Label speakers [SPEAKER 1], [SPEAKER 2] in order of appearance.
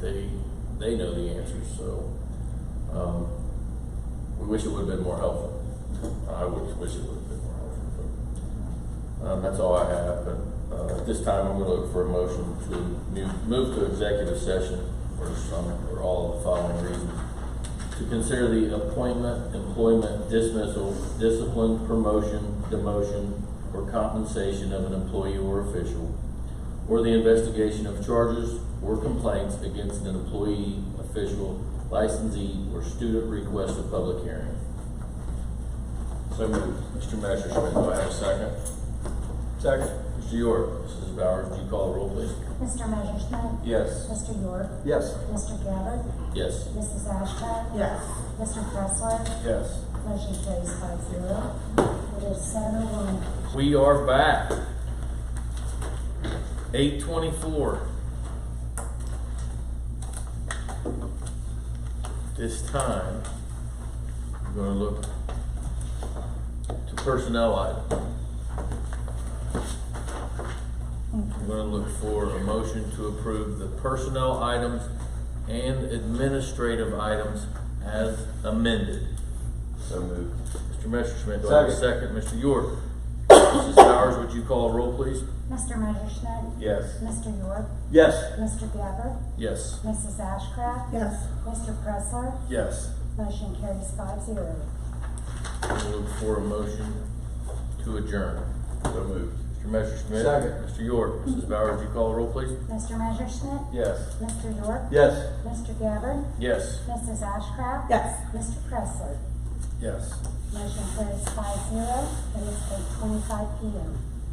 [SPEAKER 1] they, they know the answers, so, um, we wish it would've been more helpful. I would wish it would've been more helpful, but, um, that's all I have, but, uh, at this time, I'm gonna look for a motion to mu- move to executive session for some, or all of the following reasons. To consider the appointment, employment, dismissal, discipline, promotion, demotion, or compensation of an employee or official, or the investigation of charges or complaints against an employee, official, licensee, or student request a public hearing. So moved. Mr. Messerschmidt, do I have a second?
[SPEAKER 2] Second.
[SPEAKER 1] Mr. York, Mrs. Bowers, do you call the roll, please?
[SPEAKER 3] Mr. Messerschmidt.
[SPEAKER 1] Yes.
[SPEAKER 3] Mr. York.
[SPEAKER 2] Yes.
[SPEAKER 3] Mr. Gabbard.
[SPEAKER 1] Yes.
[SPEAKER 3] Mrs. Ashcraft.
[SPEAKER 4] Yes.
[SPEAKER 3] Mr. Pressler.
[SPEAKER 2] Yes.
[SPEAKER 3] Motion carries five zero. It is seven oh one.
[SPEAKER 1] We are back. Eight twenty-four. This time, I'm gonna look to personnel item. I'm gonna look for a motion to approve the personnel items and administrative items as amended.
[SPEAKER 2] So moved.
[SPEAKER 1] Mr. Messerschmidt, do I have a second?
[SPEAKER 2] Second.
[SPEAKER 1] Mr. York? Mrs. Bowers, would you call a roll, please?
[SPEAKER 3] Mr. Messerschmidt.
[SPEAKER 2] Yes.
[SPEAKER 3] Mr. York.
[SPEAKER 2] Yes.
[SPEAKER 3] Mr. Gabbard.
[SPEAKER 1] Yes.
[SPEAKER 3] Mrs. Ashcraft.
[SPEAKER 4] Yes.
[SPEAKER 3] Mr. Pressler.
[SPEAKER 2] Yes.
[SPEAKER 3] Motion carries five zero.
[SPEAKER 1] We'll look for a motion to adjourn.
[SPEAKER 2] So moved.
[SPEAKER 1] Mr. Messerschmidt?
[SPEAKER 2] Second.
[SPEAKER 1] Mr. York? Mrs. Bowers, would you call a roll, please?
[SPEAKER 3] Mr. Messerschmidt.
[SPEAKER 2] Yes.
[SPEAKER 3] Mr. York.
[SPEAKER 2] Yes.
[SPEAKER 3] Mr. Gabbard.
[SPEAKER 1] Yes.
[SPEAKER 3] Mrs. Ashcraft.
[SPEAKER 4] Yes.
[SPEAKER 3] Mr. Pressler.
[SPEAKER 2] Yes.
[SPEAKER 3] Motion carries five zero. It is eight twenty-five P M.